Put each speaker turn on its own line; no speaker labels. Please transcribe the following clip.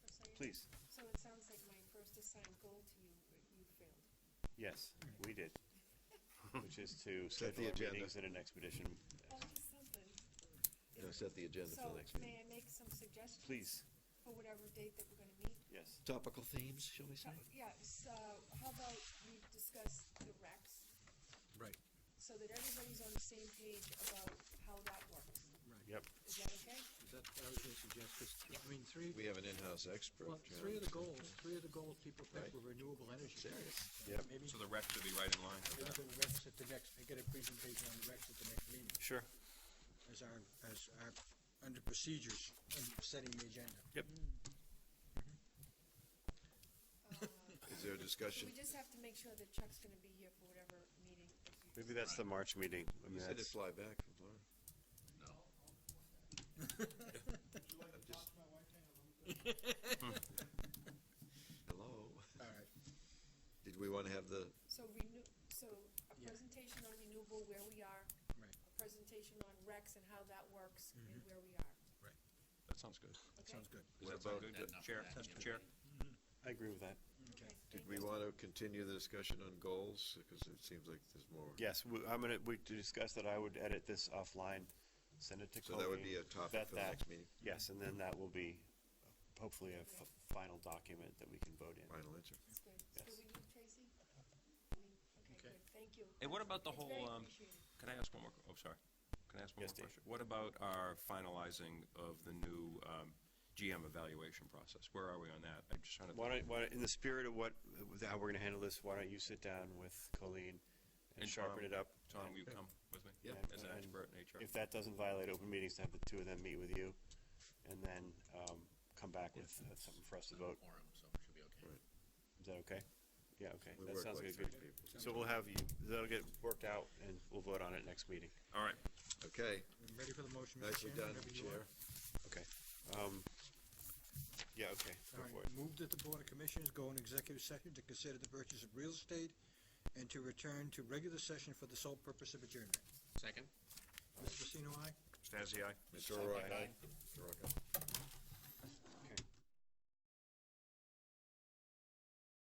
Please,
So it sounds like my first assigned goal to you, you failed.
yes, we did. Which is to
Set the
schedule our
agenda.
meetings in an expedition.
Always something.
You know, set the agenda for
So
the next
may
meeting.
I make some suggestions?
Please,
For whatever date that we're gonna meet?
yes.
Topical themes, shall we say?
So- Yeah, so how about we discuss the recs,
Right,
so that everybody's on the same page about how that works?
right.
Yep,
Is that okay?
Is that, I was gonna suggest, 'cause, I mean, three,
We have an in-house expert.
well,
John.
three of the goals, three of the goals people
Right.
picked were renewable energy.
Serious.
Yep.
Maybe,
So the rec should be right in line.
maybe the recs at the next, I get a presentation on the recs at the next meeting,
sure.
as our, as our, under procedures, and setting the agenda.
Is there a
Uh, So
discussion?
we just have to make sure that Chuck's gonna be here for whatever meeting. that you
Maybe that's the March meeting. I mean,
You said to
that's-
fly back from Florida. I'm just- Hello?
All right,
Did we want to have the,
So renew, so a
Yeah.
presentation on renewable, where we are,
right,
a presentation on recs and how that works and where we are.
Mm-hmm. That sounds good.
that
Okay?
sounds good.
Does
What
that sound
about
good? Chair, chair?
I agree with that.
Okay.
did
Thank
we
you.
want to continue the discussion on goals? Because it seems like there's more.
Yes, we- I'm gonna, we discussed that I would edit this offline, send it to Colleen.
So that would be a topic
vet
for the
that.
next meeting,
Yes, and then that will be hopefully a f- final document that we can vote in.
final answer.
That's good. So
Yes.
we need Tracy? We- Okay,
Okay.
good, thank you.
Hey, what about the
It's very
whole, um,
appreciated.
Can I ask one more, oh, sorry. Can I ask one
Yes,
more
Dave.
question? What about our finalizing of the new um, GM evaluation process? Where are we on that? I'm just trying to.
Why don't, why, don't- in the spirit of what, with how we're gonna handle this, why don't you sit down with Colleen and
And
sharpen
Tom.
it up?
Tom,
and
will you come with me?
Yeah.
As an
And-
expert in HR?
If that doesn't violate open meetings, to have the two of them meet with you, and then, um, come back with uh, something for us to vote.
Quorum, so it should be okay.
Is that okay? Yeah, okay,
We
that
work
sounds
like
good, good.
three people.
So we'll have you, that'll get worked out, and we'll vote on it next meeting.
All right.
Okay,
I'm Ready for the motion, Mr.
nicely
Chairman?
done,
whenever you
Chair.
are.
Okay, um, yeah, okay, go
All
for it.
right, move that the Board of Commissioners go in executive session to consider the purchase of real estate and to return to regular session for the sole purpose of adjournment.
Second?
Mr. Pacino, aye?
Stasi, aye.
Mr. O'Rourke. Mr. Rocco.